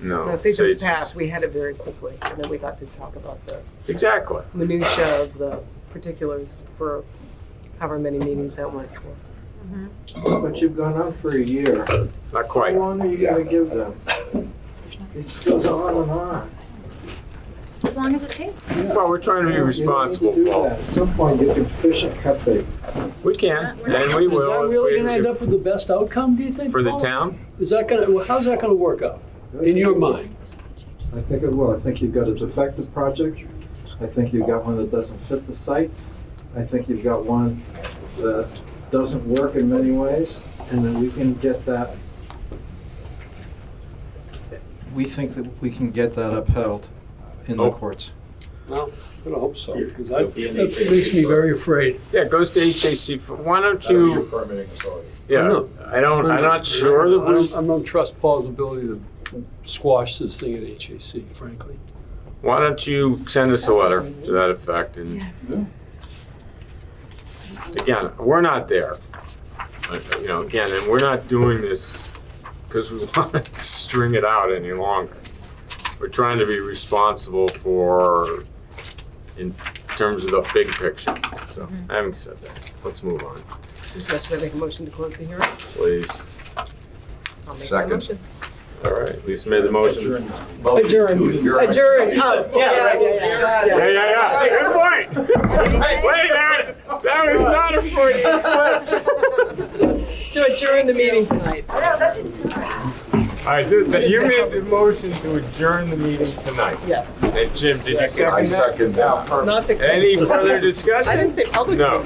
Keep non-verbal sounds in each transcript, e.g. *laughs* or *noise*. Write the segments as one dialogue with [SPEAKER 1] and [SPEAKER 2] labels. [SPEAKER 1] No.
[SPEAKER 2] No, Sagem's
[SPEAKER 1] Sage-
[SPEAKER 2] Path, we had it very quickly, and then we got to talk about the
[SPEAKER 1] Exactly.
[SPEAKER 2] minutia of the particulars for however many meetings that went for.
[SPEAKER 3] But you've gone on for a year.
[SPEAKER 1] Not
[SPEAKER 3] How
[SPEAKER 1] quite.
[SPEAKER 3] long are you gonna give them? It just goes on and on.
[SPEAKER 4] As long as it takes.
[SPEAKER 1] Well, we're trying to be
[SPEAKER 3] You don't need to
[SPEAKER 1] responsible,
[SPEAKER 3] do
[SPEAKER 1] Paul.
[SPEAKER 3] that. At some point, you can fish and cut bait.
[SPEAKER 1] We can, and we
[SPEAKER 5] Is
[SPEAKER 1] will.
[SPEAKER 5] that
[SPEAKER 1] if
[SPEAKER 5] really
[SPEAKER 1] we-
[SPEAKER 5] gonna end up with the best outcome, do you think?
[SPEAKER 1] For the
[SPEAKER 5] Paul?
[SPEAKER 1] town?
[SPEAKER 5] Is that gonna, well, how's that gonna work out, in your mind?
[SPEAKER 3] I think it will. I think you've got a defective project. I think you've got one that doesn't fit the site. I think you've got one that doesn't work in many ways, and then we can get that. We think that we can get that upheld in the
[SPEAKER 1] Oh.
[SPEAKER 3] courts.
[SPEAKER 5] Well, I don't hope so, because that that makes me very afraid.
[SPEAKER 1] Yeah, it goes to HAC. for- Why don't
[SPEAKER 6] That'll be your
[SPEAKER 1] you,
[SPEAKER 6] permitting authority.
[SPEAKER 1] yeah,
[SPEAKER 5] know.
[SPEAKER 1] I don't, I'm not sure that
[SPEAKER 5] I don't-
[SPEAKER 1] we,
[SPEAKER 5] I don't trust Paul's ability to squash this thing at HAC, frankly.
[SPEAKER 1] why don't you send us a letter to that effect and. Again, we're not there. Uh, You know, again, and we're not doing this because we *laughs* want to string it out any longer. We're trying to be responsible for, in terms of the big picture. So, having said that, let's move on,
[SPEAKER 2] So Should I make a motion to close the hearing?
[SPEAKER 1] please.
[SPEAKER 2] I'll make that
[SPEAKER 6] Second.
[SPEAKER 2] motion.
[SPEAKER 1] All right, Lisa made the motion.
[SPEAKER 2] Adjourn. Adjourn, oh, yeah, yeah, yeah, yeah.
[SPEAKER 1] Yeah, yeah, yeah. Good point. Hey, wait, that, that was not a Freudian slip.
[SPEAKER 2] To adjourn the meeting tonight.
[SPEAKER 1] All right, dude, that- you made the motion to adjourn the meeting tonight.
[SPEAKER 2] Yes.
[SPEAKER 1] And Jim, did you
[SPEAKER 6] I
[SPEAKER 1] second that?
[SPEAKER 6] second that.
[SPEAKER 2] Not to.
[SPEAKER 1] Any further
[SPEAKER 2] I didn't
[SPEAKER 1] discussion?
[SPEAKER 2] say public.
[SPEAKER 1] No.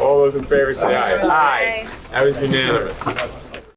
[SPEAKER 1] All those in favor say aye.
[SPEAKER 4] Aye.
[SPEAKER 1] That was unanimous.